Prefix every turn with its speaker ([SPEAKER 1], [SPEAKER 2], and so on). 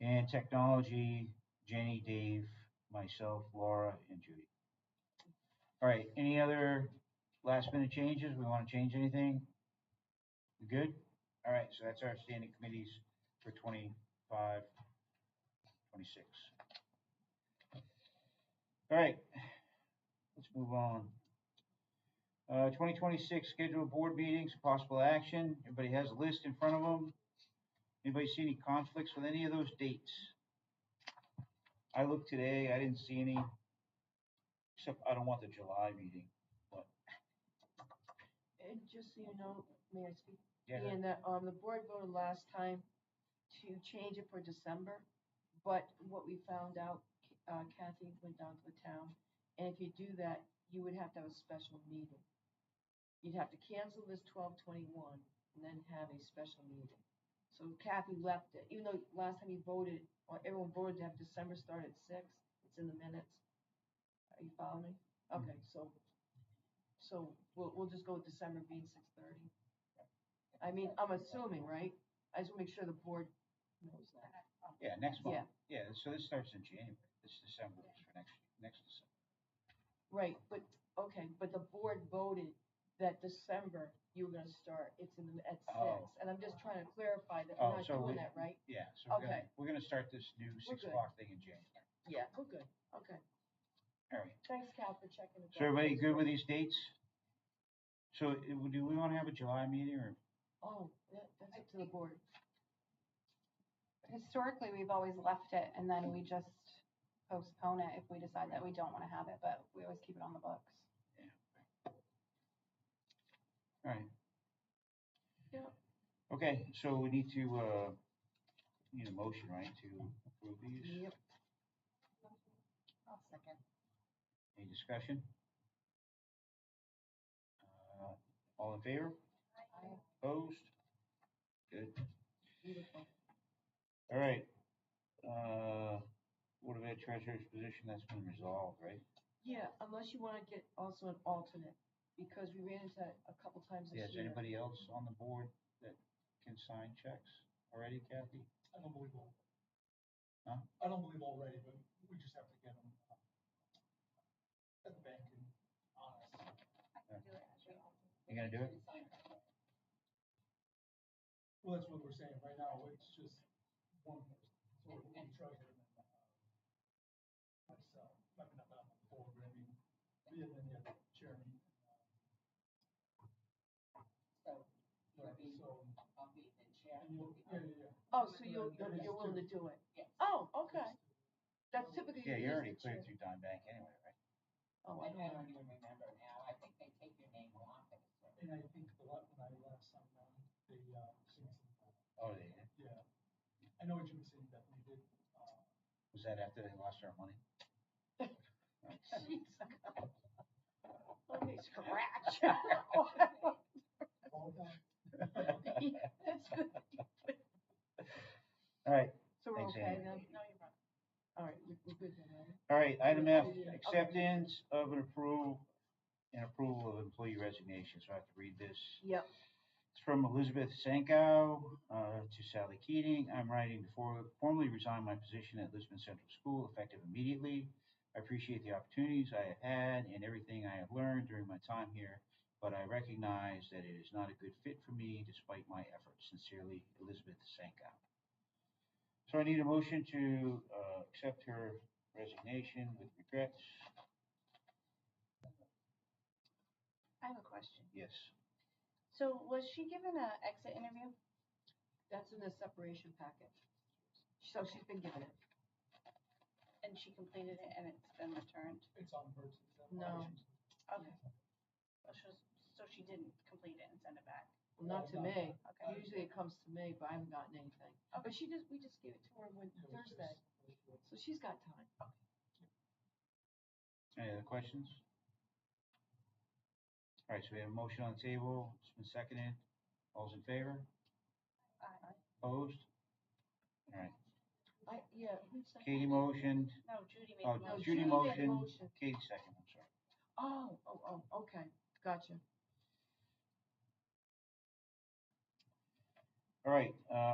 [SPEAKER 1] And technology, Jenny, Dave, myself, Laura, and Judy. All right, any other last minute changes? We want to change anything? We Good? All right, so that's our standing committees for 25, 26. All right, let's move on. Uh, 2026 scheduled board meetings, possible action. Everybody has a list in front of them. Anybody see any conflicts with any of those dates? I looked today, I didn't see any, except I don't want the July meeting.
[SPEAKER 2] And just so you know, may I speak?
[SPEAKER 1] Yeah,
[SPEAKER 2] Ian, that, um, the board voted last time to change it for December, but what we found out, uh, Kathy went down to the town, and if you do that, you would have to have a special meeting. You'd have to cancel this twelve twenty-one and then have a special meeting. So Kathy left it, even though last time you voted, or everyone voted to have December start at six, it's in the minutes. Are you following me? Okay, so, so we'll, we'll just go with December being six thirty. I mean, I'm assuming, right? I just wanna make sure the board knows that.
[SPEAKER 1] yeah, next month. Yeah,
[SPEAKER 2] Yeah,
[SPEAKER 1] so this starts in January. This December is for next, next December.
[SPEAKER 2] right, but, okay, but the board voted that December you were gonna start, it's in, the- at six.
[SPEAKER 1] Oh.
[SPEAKER 2] And I'm just trying to clarify that
[SPEAKER 1] Oh,
[SPEAKER 2] we're not
[SPEAKER 1] so we-
[SPEAKER 2] doing that, right?
[SPEAKER 1] Yeah, so we're gonna,
[SPEAKER 2] Okay.
[SPEAKER 1] we're gonna start this new six
[SPEAKER 2] good.
[SPEAKER 1] o'clock thing in January.
[SPEAKER 2] Yeah. We're Oh, good, okay.
[SPEAKER 1] All right,
[SPEAKER 2] Thanks, Cal, for checking. the
[SPEAKER 1] so everybody
[SPEAKER 2] box.
[SPEAKER 1] good with these dates? So it- do we wanna have a July meeting or,
[SPEAKER 2] Oh, that, that's up to the board.
[SPEAKER 3] historically, we've always left it and then we just postpone it if we decide that we don't want to have it, but we always keep it on the books.
[SPEAKER 1] all right?
[SPEAKER 2] Yeah.
[SPEAKER 1] Okay, so we need to, uh, need a motion, right, to approve these?
[SPEAKER 2] Yep.
[SPEAKER 3] I'll second.
[SPEAKER 1] Any discussion? Uh, All in favor? Opposed? Good.
[SPEAKER 2] Beautiful.
[SPEAKER 1] All right. Uh, what about treasurer's position? That's been resolved, right?
[SPEAKER 2] Yeah, unless you wanna get also an alternate, because we ran into that a couple times
[SPEAKER 1] Yeah,
[SPEAKER 2] this
[SPEAKER 1] is
[SPEAKER 2] year.
[SPEAKER 1] anybody else on the board that can sign checks already, Kathy?
[SPEAKER 4] I don't believe all.
[SPEAKER 1] Huh?
[SPEAKER 4] I don't believe already, but we just have to get them uh, at the bank and honest.
[SPEAKER 1] You gonna do it?
[SPEAKER 4] Well, that's what we're saying right now. It's just one person. So we're going to try to. uh, Myself, I mean, I'm not on the board, but I mean, me and then the other chairman. So. So. And you'll- Yeah, yeah, yeah.
[SPEAKER 2] Oh, so you're,
[SPEAKER 4] That
[SPEAKER 2] you're
[SPEAKER 4] is
[SPEAKER 2] you're willing to
[SPEAKER 4] true.
[SPEAKER 2] do it? Oh, okay. That's typically.
[SPEAKER 1] Yeah,
[SPEAKER 2] used
[SPEAKER 1] you're already
[SPEAKER 2] this
[SPEAKER 1] cleared
[SPEAKER 2] year.
[SPEAKER 1] through Dime Bank anyway, right?
[SPEAKER 2] Oh, I
[SPEAKER 5] I
[SPEAKER 2] don't know.
[SPEAKER 5] don't even remember now, I think they take your name off it.
[SPEAKER 4] And I think the la- when I last time around, they, uh, changed the
[SPEAKER 1] Oh, they did.
[SPEAKER 4] Yeah, I know what you were saying, that we did, uh,
[SPEAKER 1] Was that after they lost our money?
[SPEAKER 2] Jeez. Let me
[SPEAKER 1] All
[SPEAKER 2] scratch.
[SPEAKER 4] all that.
[SPEAKER 2] That's good.
[SPEAKER 1] right,
[SPEAKER 2] So we're
[SPEAKER 1] Thanks,
[SPEAKER 2] okay
[SPEAKER 1] Ann.
[SPEAKER 2] then? No, you're right. All right, we're we're good then, right?
[SPEAKER 1] all right, item F,
[SPEAKER 4] Okay.
[SPEAKER 1] acceptance of an approval, an approval of employee resignation, so I have to read this.
[SPEAKER 2] Yep.
[SPEAKER 1] It's from Elizabeth Sankow uh, to Sally Keating. I'm writing to for- formally resign my position at Lisbon Central School effective immediately. I appreciate the opportunities I have had and everything I have learned during my time here, but I recognize that it is not a good fit for me despite my efforts. Sincerely, Elizabeth Sankow. So I need a motion to uh, accept her resignation with regrets.
[SPEAKER 3] I have a question.
[SPEAKER 1] Yes.
[SPEAKER 3] So was she given an exit interview?
[SPEAKER 2] That's in the separation packet. So she's been given it.
[SPEAKER 3] And she completed it and it's been returned?
[SPEAKER 4] It's on birds and stuff.
[SPEAKER 2] No.
[SPEAKER 3] Okay. So she, so she didn't complete it and send it back?
[SPEAKER 2] Well, Not to me.
[SPEAKER 3] Okay.
[SPEAKER 2] Usually it comes to me, but I haven't gotten anything. But she just, we just gave it to her when Thursday, so she's got time.
[SPEAKER 1] Any other questions? All right, so we have a motion on the table. It's been seconded. All's in favor?
[SPEAKER 3] Uh,
[SPEAKER 1] Opposed? All right,
[SPEAKER 2] I, yeah, who seconded?
[SPEAKER 1] Katie motioned,
[SPEAKER 3] No, Judy made
[SPEAKER 1] oh,
[SPEAKER 3] the
[SPEAKER 2] No,
[SPEAKER 3] motion.
[SPEAKER 1] Judy
[SPEAKER 2] Judy made the
[SPEAKER 1] motioned,
[SPEAKER 2] motion.
[SPEAKER 1] Katie seconded, I'm sorry.
[SPEAKER 2] Oh, oh, oh, okay, gotcha.
[SPEAKER 1] All right, uh,